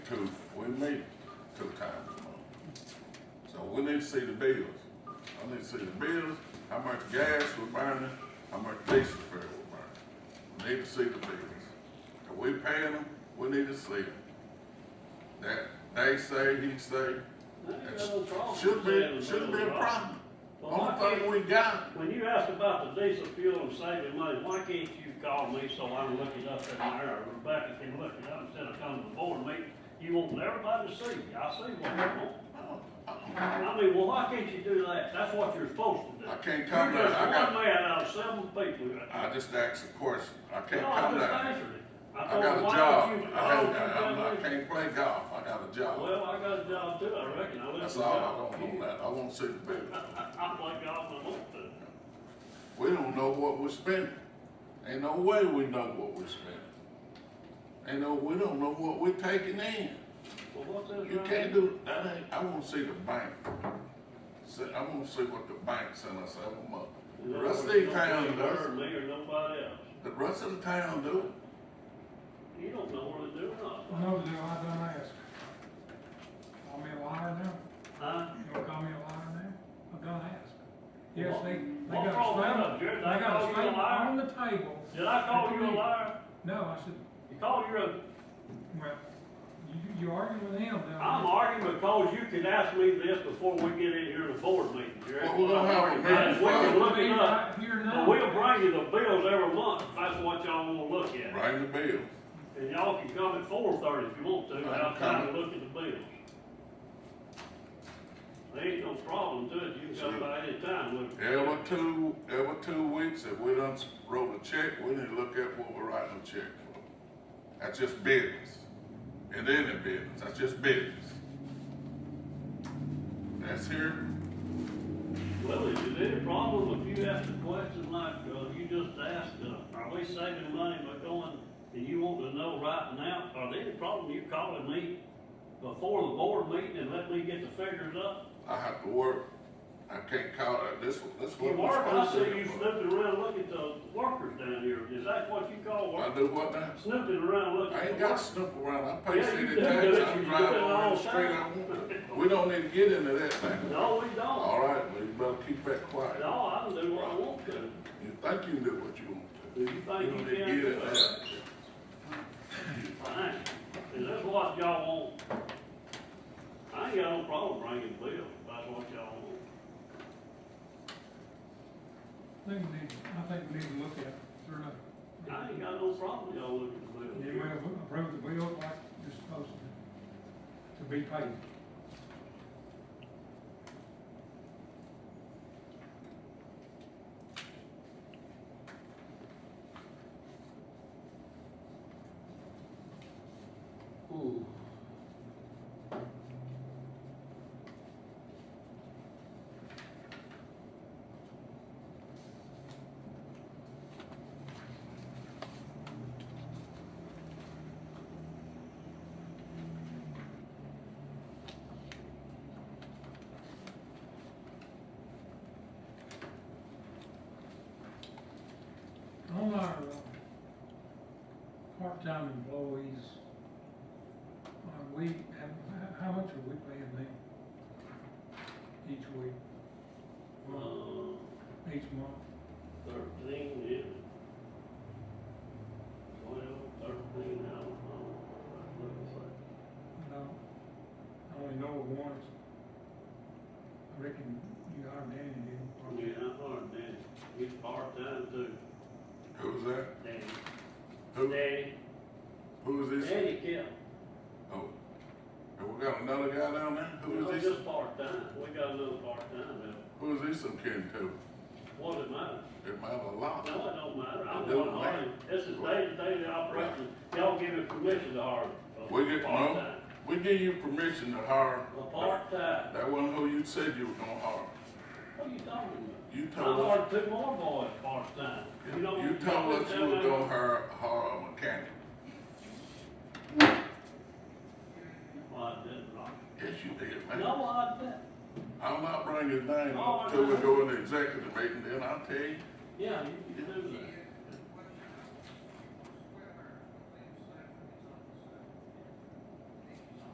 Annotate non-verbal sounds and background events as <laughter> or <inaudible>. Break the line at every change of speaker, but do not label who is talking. to, we made it to the conference. So we need to see the bills. I need to see the bills, how much gas we're burning, how much diesel fuel we're burning. We need to see the bills. If we paying them, we need to see them. That, they say, he say,
I ain't got no problem.
should
saying
be,
the
should be
bills
a
are high.
problem.
Well,
Only
why can't-
thing we got,
When you ask about the diesel fuel and saving money, why can't you call me so I can look it up in there, or Rebecca can look it up instead of coming to the board meeting? You want everybody to see, you. I see what you want. I mean, well, why can't you do that? That's what you're supposed to do.
I can't come
You're
there,
just
I got,
one man out of seven people.
I just asked a question, I can't
No, I
come
just
there.
answered it. I
I
thought,
got a
why
job,
don't you-
I
why
don't,
don't you come
I, I
in?
can't play golf, I got a job.
Well, I got a job too, I reckon. I live
That's
in
all, I
town. <laughs>
don't know that, I won't see the bills.
I, I play golf and I want to.
We don't know what we're spending. Ain't no way we know what we're spending. Ain't no, we don't know what we're taking in.
Well, what's this?
You
right
can't
here?
do, that ain't, I wanna see the bank. See, I wanna see what the bank sent us out of money. The rest of the town
Or
does,
me or nobody else.
the rest of the town do it.
You don't know whether they do or not.
No, do I don't ask? Call me a liar now?
Huh?
You gonna call me a liar now? I don't ask. Yes, they, they
What
got
wrong
a
with
statement,
that, Jared?
they
I
got a
called you a
statement
liar?
on the table.
Did I call you a liar?
No, I said,
You call you a,
well, you, you arguing with him, then.
I'm arguing because you can ask me this before we get in here to board meeting, Jared.
Well, we're gonna have a
And We can look it up.
Here
Well,
now.
we'll bring you the bills every month, if that's what y'all wanna look at.
Bring the bill.
And y'all can come at four thirty if you want to,
Right,
without time to
come.
look at the bills. There ain't no problem to it, you can come by any time, look.
Every two, every two weeks, if we done wrote a check, we need to look at what we're writing a check for. That's just business. And then the business, that's just business. That's here,
Well, is it any problem if you ask a question like, uh, you just asked, uh, are we saving money by going, and you want to know right now, are there any problem you calling me before the board meeting and let me get the figures up?
I have to work, I can't call it, this, one- this
You
one.
work, I see you snooping around looking at the workers down here, is that what you call
I
work?
do what now?
Snooping around looking
I
at
ain't
the
got
workers?
to snoop around, I pay
Yeah, you
city
do
tax,
do it,
I
you do
drive
it
around
all
the street, I
the
want to. We don't need to get into that thing.
No, we don't,
All right, well, you better keep that quiet.
no, I can do what I want to,
You think you can do what you want to.
if you think
You don't
you
need to
can,
get
do
it
it.
out.
Fine, is this what y'all want? I ain't got no problem bringing the bill, if that's what y'all want.
I think we need, I think we need to look at it, sure enough.
I ain't got no problem with y'all looking at the
Yeah,
bill.
well, approve the bill like it's supposed to, to be paid.
Ooh.
On our uh, part-time employees, uh, we, have- how much are we paying them each week?
Uh,
Each month?
thirteen, yeah. Twelve, thirteen, I don't know. Looks like-
No, I only know of one. I reckon you hired Danny, didn't you?
Yeah, I heard Danny, he's part-time too.
Who's that?
Danny,
Who,
Danny,
who is this?
Danny Kell.
Oh, and we got another guy down there? Who
No,
is this?
just part-time, we got another part-time now.
Who is this I'm kidding to?
What it matter?
It matter a lot.
No, it don't matter, I'm
It don't
one hard, this is day-to-day operation, y'all give me permission to hire. a
We get, no,
part-time.
we give you permission to hire.
A part-time,
That wasn't who you said you were gonna hire.
what are you talking
You
about? I
told us,
hired two more boys part-time, you don't.
you told us you
don't
were
tell
gonna
me-
hire, hire a mechanic.
Well, I didn't, Rob.
Yes, you did, man.
no, I didn't,
I'll not bring his name
Oh,
up till we
no.
go in the executive meeting, then I'll tell you.
yeah, you can do that.